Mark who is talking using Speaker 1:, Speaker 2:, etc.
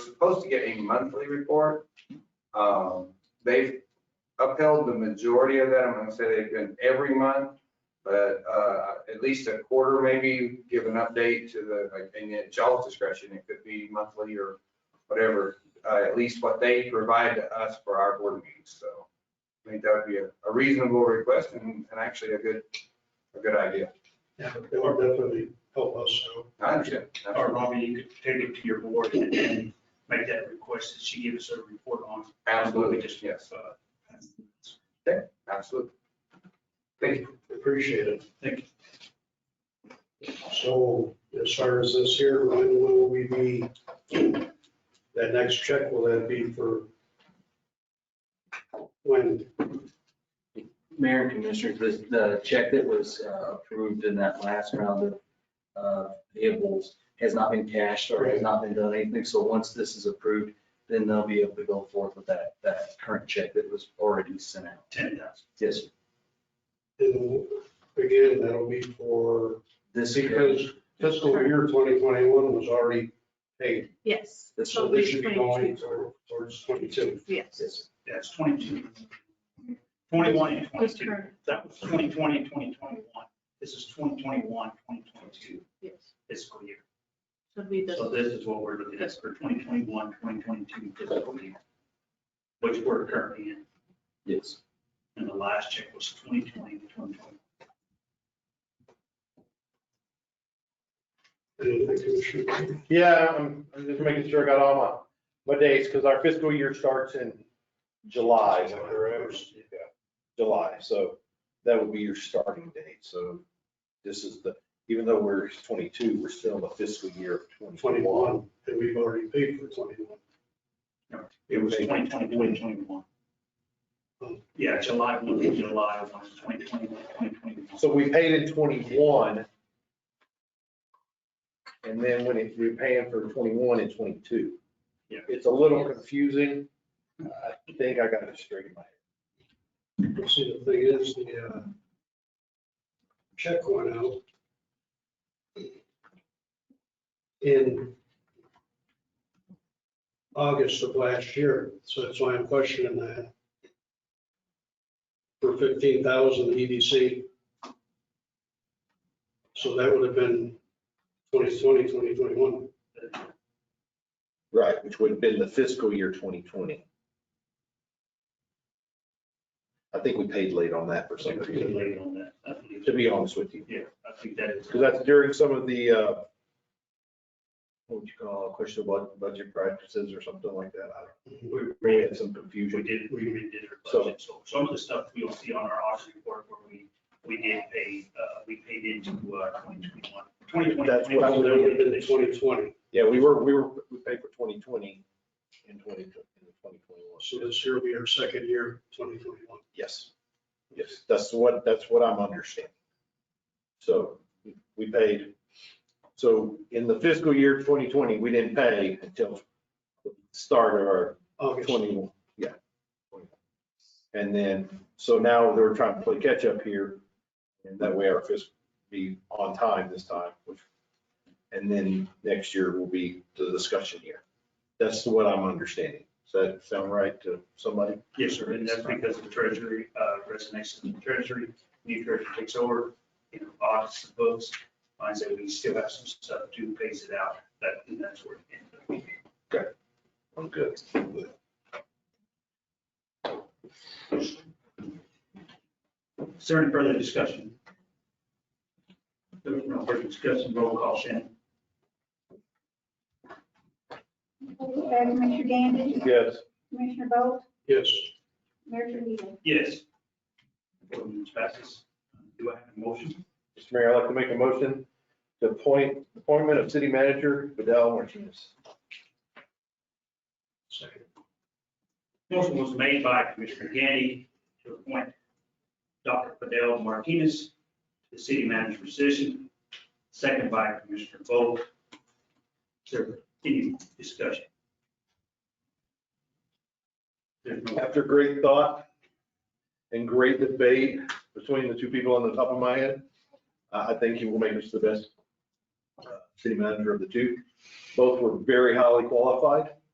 Speaker 1: supposed to get a monthly report. Um, They've upheld the majority of that. I'm gonna say they've been every month, but uh, at least a quarter maybe, give an update to the, like, and at y'all's discretion, it could be monthly or whatever, uh, at least what they provide to us for our board meetings. So I think that would be a a reasonable request and and actually a good, a good idea.
Speaker 2: Yeah, it would definitely help us, so.
Speaker 1: I understand.
Speaker 3: Or Robbie, you could take it to your board and and make that request that she gives us a report on.
Speaker 1: Absolutely, yes,
Speaker 3: Uh,
Speaker 1: absolutely. Thank you.
Speaker 2: Appreciate it.
Speaker 3: Thank you.
Speaker 2: So as far as this here, when will we be, that next check, will that be for? When,
Speaker 4: Mayor and Commissioners, the- the check that was uh, approved in that last round of uh, payables has not been cashed or has not been done anything. So once this is approved, then they'll be able to go forth with that, that current check that was already sent out.
Speaker 3: Ten thousand.
Speaker 4: Yes, sir.
Speaker 2: and again, that'll be for,
Speaker 4: this is,
Speaker 2: because fiscal year twenty twenty-one was already paid.
Speaker 5: Yes.
Speaker 4: That's
Speaker 2: So this should be going toward- towards twenty-two.
Speaker 5: Yes.
Speaker 4: yes,
Speaker 3: That's twenty-two. Twenty-one and
Speaker 5: That's
Speaker 3: twenty-two.
Speaker 5: current,
Speaker 3: That was 2020 and 2021. This is 2021, 2022
Speaker 5: yes.
Speaker 3: fiscal year.
Speaker 5: Should be
Speaker 3: So
Speaker 5: the,
Speaker 3: this is what we're looking at for 2021, 2022 fiscal year, which we're currently in.
Speaker 4: yes.
Speaker 3: And the last check was 2020 to 2021.
Speaker 2: And I think we should-
Speaker 6: Yeah, I'm, I'm just making sure I got all my, my dates, because our fiscal year starts in July,
Speaker 2: Is that correct?
Speaker 6: July, so that would be your starting date, so this is the, even though we're twenty-two, we're still in the fiscal year of twenty-one.
Speaker 2: Twenty-one, and we've already paid for twenty-one.
Speaker 3: It was 2020 to 2021. Yeah, July 1, to July 1, 2021, 2021.
Speaker 6: So we paid in twenty-one. And then when it, we're paying for twenty-one and twenty-two.
Speaker 3: Yeah.
Speaker 6: It's a little confusing, I think I got it straight in my head.
Speaker 2: See, the thing is, the uh, check went out in August of last year, so that's why I'm questioning that. For fifteen thousand E EDC. So that would have been 2020, 2021.
Speaker 6: Right, which would have been the fiscal year 2020. I think we paid late on that for
Speaker 3: So
Speaker 6: some
Speaker 3: we're getting
Speaker 6: reason,
Speaker 3: late on that. I believe.
Speaker 6: to be honest with you.
Speaker 3: Yeah, I think that is.
Speaker 6: Because that's during some of the, uh, what would you call, it, questionable budget practices or something like that. I
Speaker 3: We
Speaker 6: don't know. We had some
Speaker 3: We
Speaker 6: confusion.
Speaker 3: did, we redid our budget, so some of the stuff we'll see on our audit report where we, we did pay, uh, we paid into, uh, 2021. 2020.
Speaker 6: That's what I
Speaker 2: So that would have been 2020,
Speaker 6: Yeah, we were, we were, we paid for 2020 and 20 and 2021.
Speaker 2: so this year will be our second year, 2021.
Speaker 6: Yes, yes, that's what, that's what I'm understanding. So we paid, so in the fiscal year 2020, we didn't pay until the start of our
Speaker 2: August.
Speaker 6: 21, yeah. And then, so now they're trying to play catch up here, and that way our fiscal be on time this time, which, and then next year will be the discussion year. That's what I'm understanding. Does that sound right to somebody?
Speaker 3: Yes, sir, and that's because the treasury, uh, resonates with the treasury, new treasury takes over, you know, audits the books, finds that we still have some stuff to phase it out, that, and that's where it ends up.
Speaker 6: I'm good.
Speaker 3: Is there any further discussion? There's no further discussion, roll call, Shannon.
Speaker 7: Uh, Commissioner Gandy,
Speaker 6: Yes.
Speaker 7: Commissioner Bolt,
Speaker 2: Yes.
Speaker 7: Mayor Trujillo.
Speaker 3: Yes. Ordinance passes. Do I have a motion?
Speaker 6: Mr. Mayor, I'd like to make a motion to appoint, appointment of city manager Vidal Martinez.
Speaker 2: Second.
Speaker 3: Motion was made by Commissioner Gandy to appoint Dr. Fidel Martinez to the city manager position, second by Commissioner Bowe. Is there any discussion? There's no,
Speaker 6: After great thought and great debate between the two people on the top of my head, I I think he will make us the best uh, city manager of the two. Both were very highly qualified.